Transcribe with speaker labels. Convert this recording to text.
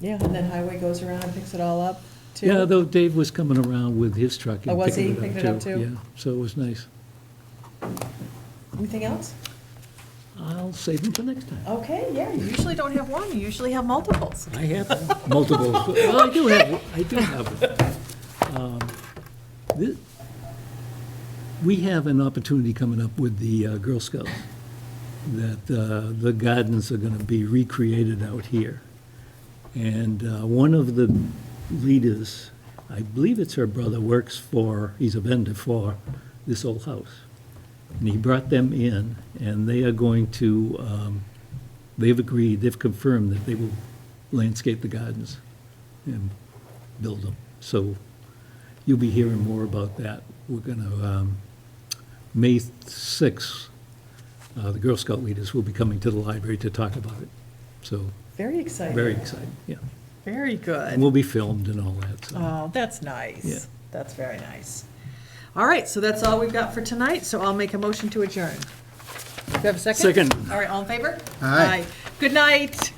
Speaker 1: Yeah, and then highway goes around and picks it all up, too?
Speaker 2: Yeah, though Dave was coming around with his truck. and
Speaker 1: Oh, was
Speaker 2: picking
Speaker 1: he? Picked it up, too?
Speaker 2: Yeah, so it was nice.
Speaker 1: Anything else?
Speaker 2: I'll save them for next time.
Speaker 1: Okay, yeah, you usually don't have one, you usually have multiples.
Speaker 2: I have multiple, well, I do have, I do have. um, thi- We have an opportunity coming up with the uh, Girl Scouts, that uh, the gardens are gonna be recreated out here. And uh, one of the leaders, I believe it's her brother, works for, he's a vendor for this old house. And he brought them in, and they are going to, um, they've agreed, they've confirmed that they will landscape the gardens and build them. So you'll be hearing more about that. We're going to, May 6th, uh, the Girl Scout leaders will be coming to the library to talk about it. So,
Speaker 1: Very exciting.
Speaker 2: very exciting, yeah.
Speaker 1: Very
Speaker 2: And
Speaker 1: good.
Speaker 2: we'll be filmed and all that, so.
Speaker 1: Oh, that's
Speaker 2: Yeah.
Speaker 1: nice. That's very nice. All right, so that's all we've got for tonight, so I'll make a motion to adjourn. Do you have a second?
Speaker 2: Second.
Speaker 1: All right, all in favor?
Speaker 3: Aye.
Speaker 1: Good night.